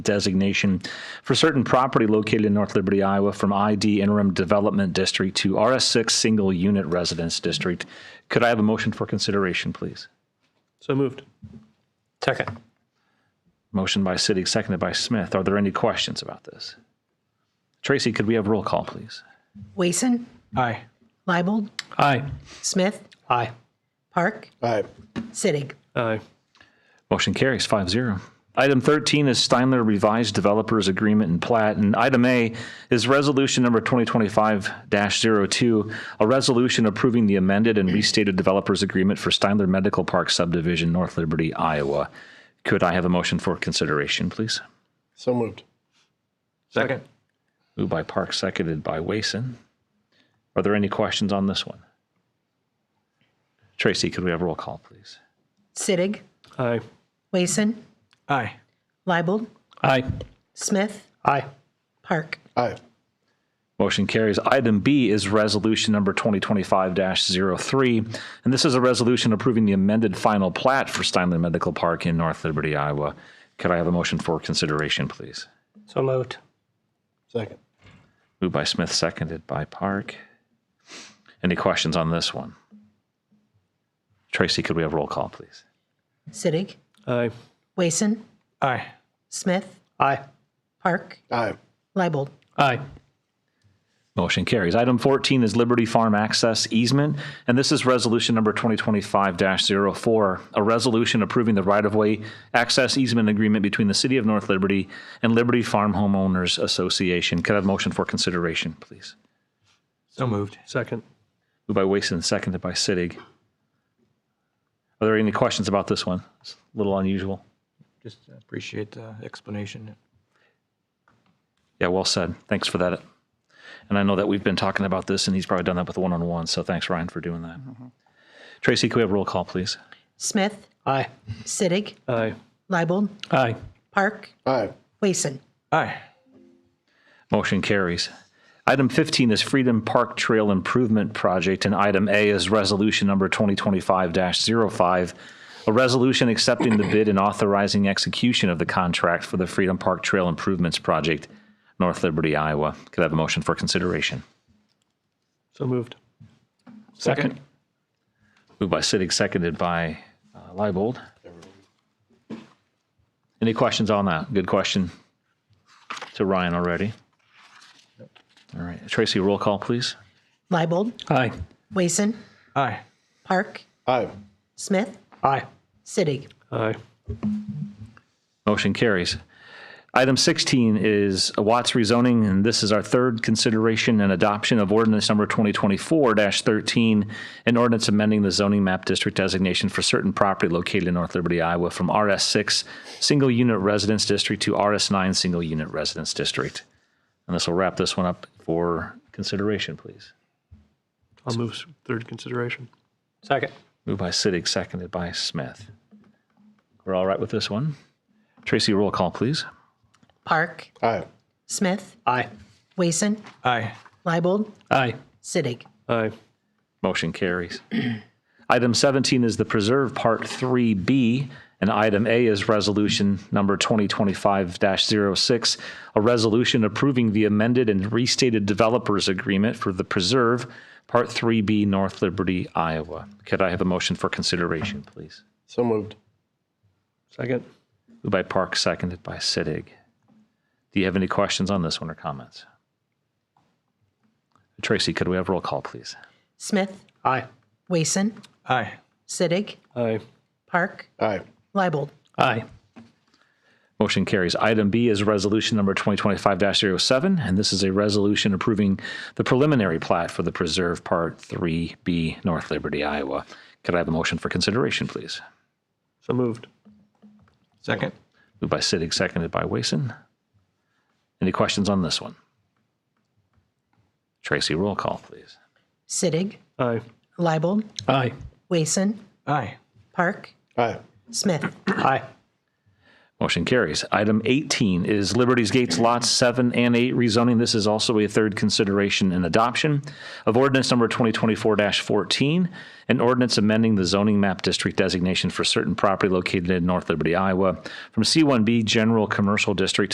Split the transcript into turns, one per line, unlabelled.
designation for certain property located in North Liberty, Iowa, from ID Interim Development District to RS6 Single Unit Residence District. Could I have a motion for consideration, please?
So moved.
Second.
Motion by City, seconded by Smith. Are there any questions about this? Tracy, could we have roll call, please?
Wason,
Aye.
Leibold,
Aye.
Smith,
Aye.
Park,
Aye.
Sittig.
Aye.
Motion carries 5-0. Item 13 is Steinler Revised Developers Agreement and Plat. And item A is Resolution Number 2025-02, a resolution approving the amended and restated developers agreement for Steinler Medical Park subdivision, North Liberty, Iowa. Could I have a motion for consideration, please?
So moved.
Second.
Moved by Park, seconded by Wason. Are there any questions on this one? Tracy, could we have a roll call, please?
Sittig,
Aye.
Wason,
Aye.
Leibold,
Aye.
Smith,
Aye.
Park.
Aye.
Motion carries. Item B is resolution number 2025-03, and this is a resolution approving the amended final plat for Steinle Medical Park in North Liberty, Iowa. Could I have a motion for consideration, please?
So moved.
Second.
Moved by Smith, seconded by Park. Any questions on this one? Tracy, could we have roll call, please?
Sittig,
Aye.
Wason,
Aye.
Smith,
Aye.
Park,
Aye.
Leibold,
Aye.
Motion carries. Item 14 is Liberty Farm Access Easement, and this is resolution number 2025-04, a resolution approving the right-of-way access easement agreement between the City of North Liberty and Liberty Farm Homeowners Association. Could I have a motion for consideration, please?
So moved. Second.
Moved by Wason, seconded by Sittig. Are there any questions about this one? It's a little unusual.
Just appreciate the explanation.
Yeah, well said. Thanks for that. And I know that we've been talking about this, and he's probably done that with one-on-one, so thanks, Ryan, for doing that. Tracy, could we have roll call, please?
Smith,
Aye.
Sittig,
Aye.
Leibold,
Aye.
Park,
Aye.
Wason.
Aye.
Motion carries. Item 15 is Freedom Park Trail Improvement Project, and item A is resolution number 2025-05, a resolution accepting the bid and authorizing execution of the contract for the Freedom Park Trail Improvements Project, North Liberty, Iowa. Could I have a motion for consideration?
So moved.
Second.
Moved by Sittig, seconded by uh, Leibold. Any questions on that? Good question to Ryan already. All right, Tracy, roll call, please.
Leibold,
Aye.
Wason,
Aye.
Park,
Aye.
Smith,
Aye.
Sittig.
Aye.
Motion carries. Item 16 is Watts rezoning, and this is our third consideration and adoption of ordinance number 2024-13, an ordinance amending the zoning map district designation for certain property located in North Liberty, Iowa, from RS6 Single Unit Residence District to RS9 Single Unit Residence District. And this will wrap this one up for consideration, please.
I'll move s- third consideration.
Second.
Moved by Sittig, seconded by Smith. We're all right with this one? Tracy, roll call, please.
Park,
Aye.
Smith,
Aye.
Wason,
Aye.
Leibold,
Aye.
Sittig.
Aye.
Motion carries. Item 17 is the Preserve Part 3B, and item A is Resolution Number 2025-06, a resolution approving the amended and restated developers agreement for the Preserve Part 3B, North Liberty, Iowa. Could I have a motion for consideration, please?
So moved.
Second.
Moved by Park, seconded by Sittig. Do you have any questions on this one or comments? Tracy, could we have roll call, please?
Smith,
Aye.
Wason,
Aye.
Sittig,
Aye.
Park,
Aye.
Leibold,
Aye.
Motion carries. Item B is resolution number 2025-07, and this is a resolution approving the preliminary plat for the Preserve Part 3B, North Liberty, Iowa. Could I have a motion for consideration, please?
So moved.
Second.
Moved by Sittig, seconded by Wason. Any questions on this one? Tracy, roll call, please.
Sittig,
Aye.
Leibold,
Aye.
Wason,
Aye.
Park,
Aye.
Smith,
Aye.
Motion carries. Item 18 is Liberty's Gates Lots 7 and 8 rezoning. This is also a third consideration and adoption of ordinance number 2024-14, an ordinance amending the zoning map district designation for certain property located in North Liberty, Iowa, from C1B General Commercial District